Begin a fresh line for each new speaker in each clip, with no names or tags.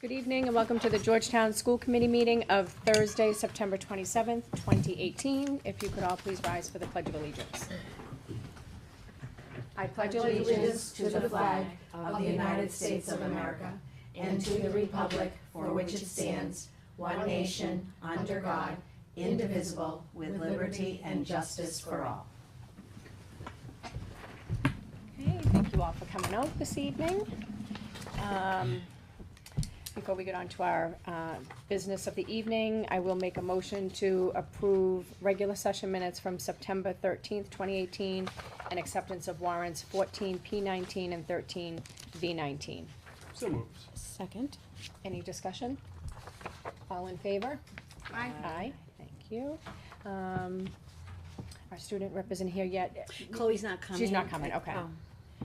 Good evening and welcome to the Georgetown School Committee meeting of Thursday, September 27th, 2018. If you could all please rise for the Pledge of Allegiance. I
pledge allegiance to the flag of the United States of America and to the republic for which it stands, one nation, under God, indivisible, with liberty and justice for all.
Okay, thank you all for coming out this evening. Um, Before we get on to our uh, business of the evening, I will make a motion to approve regular session minutes from September thirteenth, twenty eighteen, and acceptance of warrants fourteen P nineteen and thirteen V nineteen.
So moves.
Second. Any discussion? All in favor? Aye. Aye, thank you. Um, Our student rep isn't here yet.
Chloe's not coming.
She's not coming, okay.
Oh.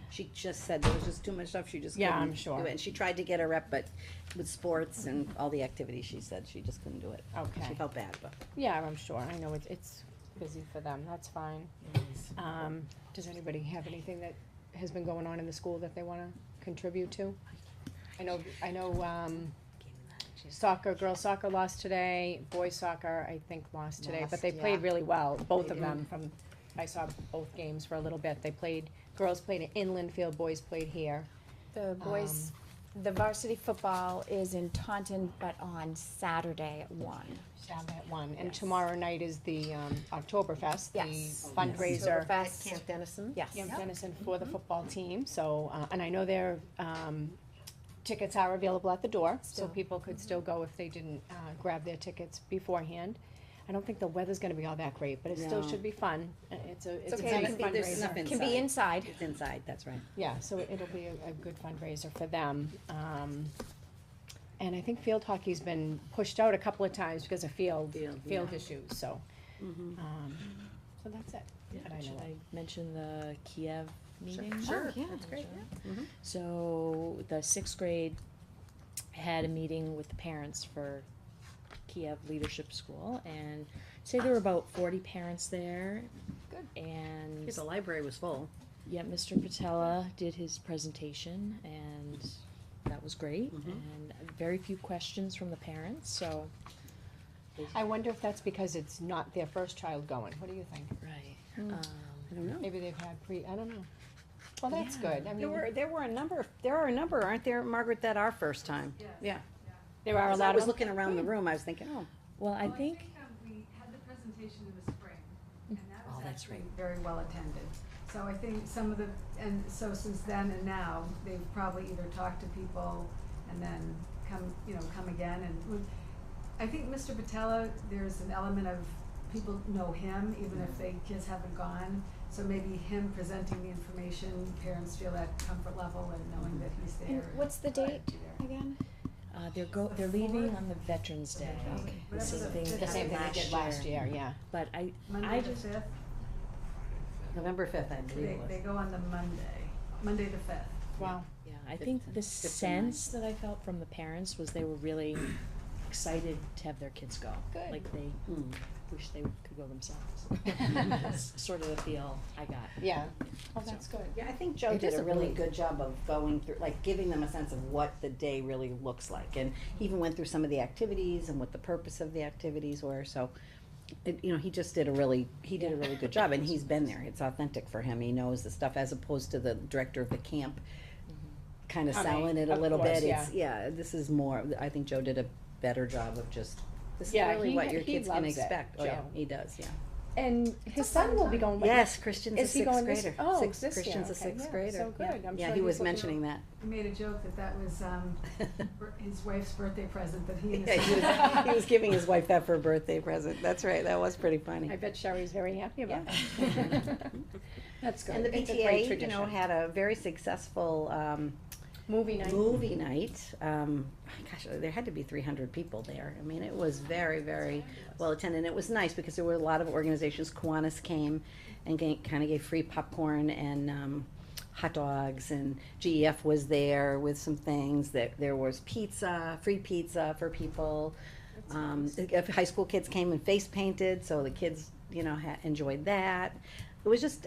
She just said there was just too much stuff, she just
Yeah,
couldn't.
I'm
do
sure.
it. And she tried to get her rep, but with sports and all the activities, she said she just couldn't do it. She
Okay.
felt bad, but.
Yeah, I'm sure, I know it's, it's busy for them, that's fine. Um, does anybody have anything that has been going on in the school that they wanna contribute to? I know, I know, um, soccer, girls soccer lost today, boys soccer, I think, lost today, but they
Lost,
played
yeah.
really well, both
They
of them from, I saw both games for a little bit, they played, girls played in inland field, boys played here.
The boys, the varsity football is in Taunton, but on Saturday at one.
Saturday at one, and
Yes.
tomorrow night is the, um, Oktoberfest, the
Yes.
fundraiser.
Oktoberfest.
Dennison?
Yes.
Young Dennison for the football team, so, uh, and I know their, um, tickets are available at the door, so
Still.
people could still go if they didn't, uh, grab their tickets beforehand. I don't think the weather's gonna be all that great, but it still
No.
should be fun, Uh, it's a, it's a
okay,
great
it
can be- there's
fundraiser.
nothing-
Can be inside.
It's inside, that's right.
Yeah, so it- it'll be a, a good fundraiser for them, um, and I think field hockey's been pushed out a couple of times because of field,
Field,
field
yeah.
issues, so,
Mm-hmm.
um, so that's it. that I know
Should
of.
I mention the Kiev meeting?
Sure. Oh, yeah, Mm-hmm.
That's
great,
Mhm.
So the sixth grade had a meeting with the parents for Kiev Leadership School and say there were about forty parents there.
Good.
And,
The library was full.
yeah, Mr. Patella did his presentation and that was great.
Mm-hmm.
Mhm.
And very few questions from the parents, so.
I wonder if that's because it's not their first child going, what do you think?
Right.
Mm.
Um,
I don't know.
Maybe they've had pre, I don't know. Well, that's
Yeah.
good. I
There
mean,
were, there were a number, of- there are a number, aren't there, Margaret, that are first time? Yeah.
there are a
As I
lot
was
of,
looking around the room, I was thinking, oh,
Well, I
Well,
think,
um, we had the presentation in the spring, and that
Oh,
was
that's
actually very well attended. So I think some of the, and so since then and now, they've probably either talked to people and then come, you know, come again and we- I think Mr. Patella, there's an element of people know him, even if they kids haven't gone. So maybe him presenting the information, parents feel that comfort level and
Mm-hmm.
knowing that he's
And
there.
what's the date
Be there.
again?
uh, they're go,
The
they're leaving
fourth?
on the Veterans Day.
Okay.
The same
Whatever
thing
the
the same thing
happened
they did last year, yeah.
But I, I
Monday the
just,
fifth,
November fifth, I believe
they,
it was.
they go on the Monday, Monday the fifth.
Wow.
yeah, I think the
Fifth and ninth.
sense that I felt from the parents was they were really excited to have their kids go.
Good.
Like they
Mm.
wish they could go themselves. That's sort of the feel I got.
Yeah. Oh, that's good.
Yeah, I think Joe
It
did
is
a
a
really
really-
good job of going through, like, giving them a sense of what the day really looks like. And he even went through some of the activities and what the purpose of the activities were, so, it, you know, he just did a really, he did a really good job, and he's been there. It's authentic for him. He knows the stuff, as opposed to the director of the camp kind of
I mean,
selling it a
of
little
course,
bit. It's, yeah, this is more, I think Joe did a better job of just, this is
Yeah,
really
he-
what your
he
kid's gonna
loves it,
expect. Oh, yeah,
Joe.
He does, yeah.
And his son
fun
will be
time.
going with
Yes, Oh Christian's a
Is he
sixth
going this-
grader.
oh,
Sixth-
this year,
Christian's a
okay,
sixth
yeah,
grader.
so
Yeah.
good. I'm
Yeah,
sure
he
he's
was
looking
mentioning that.
He made a joke that that was um, bir- his wife's birthday present that he and
Yeah,
his
he, was, he was giving his wife that for a birthday present. That's right. That was pretty funny.
I bet Sherry's very happy about
Yeah.
that. That's good.
And the
It's a great
PTA, you know,
tradition.
had a very successful um,
Movie night.
movie night. Um, gosh, there had to be 300 people there. I mean, it was very, very well attended. And it was nice because there were a lot of organizations. Kiwanis came and kind of gave free popcorn and um, hot dogs, and GEF was there with some things. That there was pizza, free pizza for people. Um, the- High school kids came and face painted, so the kids, you know, ha- enjoyed that. It was just